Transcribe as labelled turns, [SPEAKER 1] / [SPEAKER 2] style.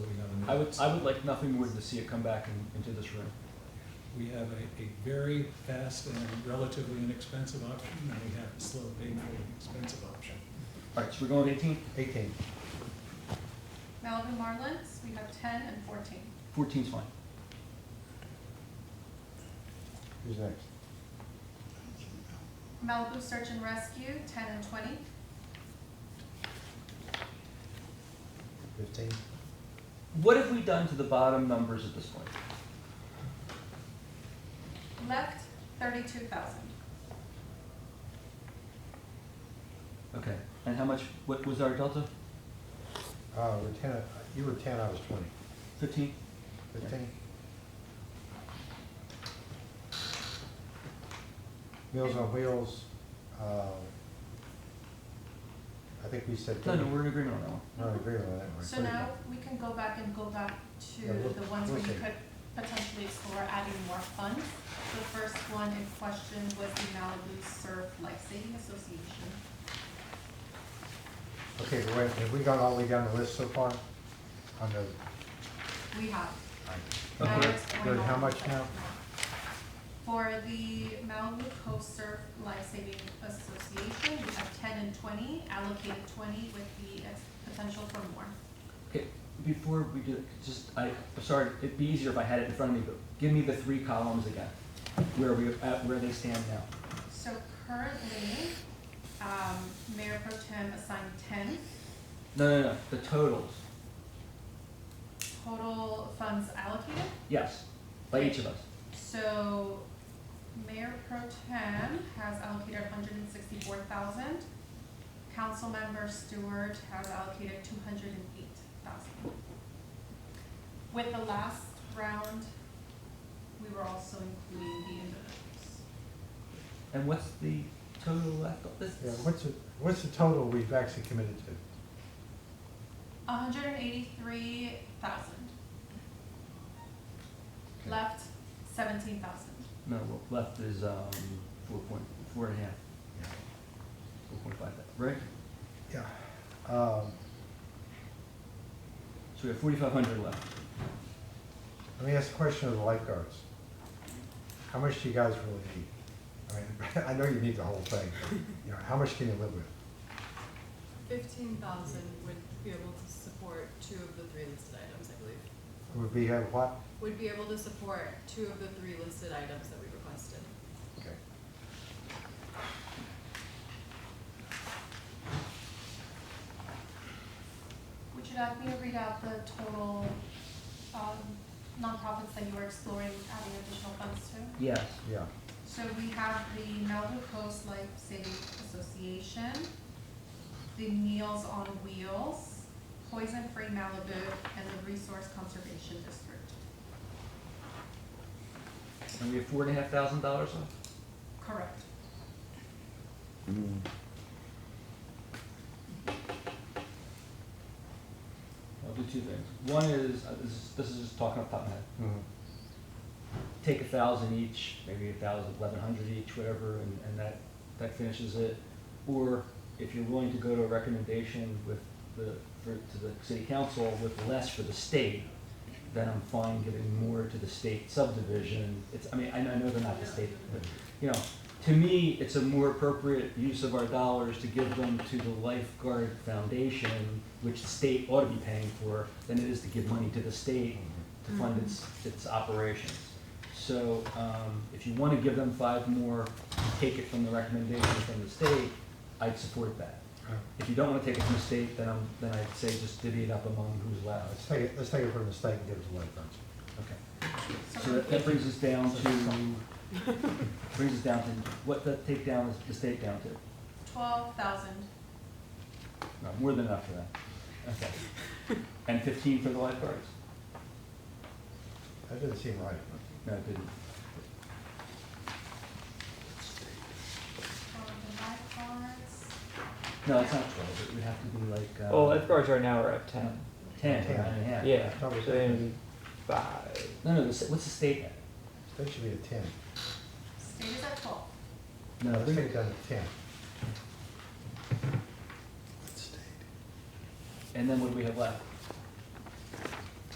[SPEAKER 1] I would, I would like nothing more than to see it come back in- into this room.
[SPEAKER 2] We have a, a very fast and relatively inexpensive option, and we have a slow, painful, and expensive option.
[SPEAKER 1] All right, so we're going with 18?
[SPEAKER 3] Eighteen.
[SPEAKER 4] Malibu Marlins, we have ten and fourteen.
[SPEAKER 1] 14 is fine.
[SPEAKER 3] Who's next?
[SPEAKER 4] Malibu Search and Rescue, ten and twenty.
[SPEAKER 3] Fifteen?
[SPEAKER 1] What have we done to the bottom numbers at this point?
[SPEAKER 4] Left, thirty-two thousand.
[SPEAKER 1] Okay, and how much, what was our delta?
[SPEAKER 3] Uh, we're ten, uh, you were ten, I was twenty.
[SPEAKER 1] 15?
[SPEAKER 3] Fifteen? Meals on Wheels, uh, I think we said.
[SPEAKER 1] No, no, we're in agreement on that one.
[SPEAKER 3] No, I agree on that one.
[SPEAKER 4] So now we can go back and go back
[SPEAKER 3] Yeah, we'll-
[SPEAKER 4] to the ones where
[SPEAKER 3] we'll
[SPEAKER 4] you
[SPEAKER 3] see.
[SPEAKER 4] could potentially explore adding more funds. The first one in question was the Malibu Surf Lifesaving Association.
[SPEAKER 3] Okay, but wait, have we got all the way down the list so far? On the,
[SPEAKER 4] We have.
[SPEAKER 3] all right.
[SPEAKER 4] Now
[SPEAKER 3] Okay,
[SPEAKER 4] it's going
[SPEAKER 3] good, how
[SPEAKER 4] on
[SPEAKER 3] much
[SPEAKER 4] right
[SPEAKER 3] now?
[SPEAKER 4] um, For the Malibu Coast Surf Lifesaving Association, we have ten and twenty, allocated twenty with the ex- potential for more.
[SPEAKER 1] Okay, before we do, just, I, I'm sorry, it'd be easier if I had it in front of me, but give me the three columns again, where we, at where they stand now.
[SPEAKER 4] So currently, um, Mayor Pro Tem assigned ten,
[SPEAKER 1] No, no, no, the totals,
[SPEAKER 4] total funds allocated.
[SPEAKER 1] yes, by each of us.
[SPEAKER 4] So Mayor Pro Tem has allocated hundred and sixty-four thousand. Councilmember Stewart has allocated two hundred and eight thousand. With the last round, we were also including the individuals.
[SPEAKER 1] And what's the total left of this?
[SPEAKER 3] yeah, what's, the- what's the total we've actually committed to?
[SPEAKER 4] hundred and eighty-three thousand. Left seventeen thousand.
[SPEAKER 1] No, what left is, um, four point, four and a half,
[SPEAKER 3] Yeah.
[SPEAKER 1] four point five, right?
[SPEAKER 3] Yeah. Um,
[SPEAKER 1] So we have forty-five hundred left.
[SPEAKER 3] Let me ask a question of the lifeguards. How much do you guys really need? I mean, I know you need the whole thing, but, you know, how much can you live with?
[SPEAKER 5] Fifteen thousand would be able to support two of the three listed items, I believe.
[SPEAKER 3] Would we have what?
[SPEAKER 5] Would be able to support two of the three listed items that we requested.
[SPEAKER 3] Okay.
[SPEAKER 4] Would you like me to read out the total, um, nonprofits that you were exploring adding additional funds to?
[SPEAKER 1] Yes.
[SPEAKER 3] Yeah,
[SPEAKER 4] So we have the Malibu Coast Life Saving Association, the Meals on Wheels, Poison Free Malibu, and the Resource Conservation District.
[SPEAKER 1] And we have four and a half thousand dollars left?
[SPEAKER 4] Correct.
[SPEAKER 1] I'll do two things. One is, uh, this is, this is just talking off the top of my head.
[SPEAKER 3] Mhm.
[SPEAKER 1] Take a thousand each, maybe a thousand, eleven hundred each, whatever, and, and that, that finishes it. Or if you're willing to go to a recommendation with the, for, to the city council with less for the state, then I'm fine giving more to the state subdivision. It's, I mean, I know I know they're not the state, but, you know, to me, it's a more appropriate use of our dollars to give them to the lifeguard foundation, which the state ought to be paying for, than it is to give money to the state to fund its, its operations. So, um, if you wanna give them five more, take it from the recommendation from the state, I'd support that.
[SPEAKER 3] Uh,
[SPEAKER 1] If you don't wanna take it from the state, then I'm, then I'd say just divvy it up among who's allowed.
[SPEAKER 3] Let's take it, let's take it from the state and give it to the lifeguards.
[SPEAKER 1] Okay. So
[SPEAKER 4] So
[SPEAKER 1] that- that brings us down to, brings us down to, what the takedown is, the state down to?
[SPEAKER 4] twelve thousand,
[SPEAKER 1] No, more than enough for that. Okay. And fifteen for the lifeguards?
[SPEAKER 3] That doesn't seem right.
[SPEAKER 1] No, it didn't.
[SPEAKER 4] for the lifeguards,
[SPEAKER 1] No, it's not twelve, it would have to be like, uh.
[SPEAKER 6] Well, Oh, lifeguards right now are at ten.
[SPEAKER 1] Ten, nine and a half.
[SPEAKER 6] Yeah, so
[SPEAKER 3] Probably
[SPEAKER 6] they need five.
[SPEAKER 1] No, no, the s- what's the state at?
[SPEAKER 3] They should be a ten.
[SPEAKER 4] state is at twelve.
[SPEAKER 1] No,
[SPEAKER 3] Let's
[SPEAKER 1] they're-
[SPEAKER 3] take it down to ten.
[SPEAKER 1] and then what do we have left?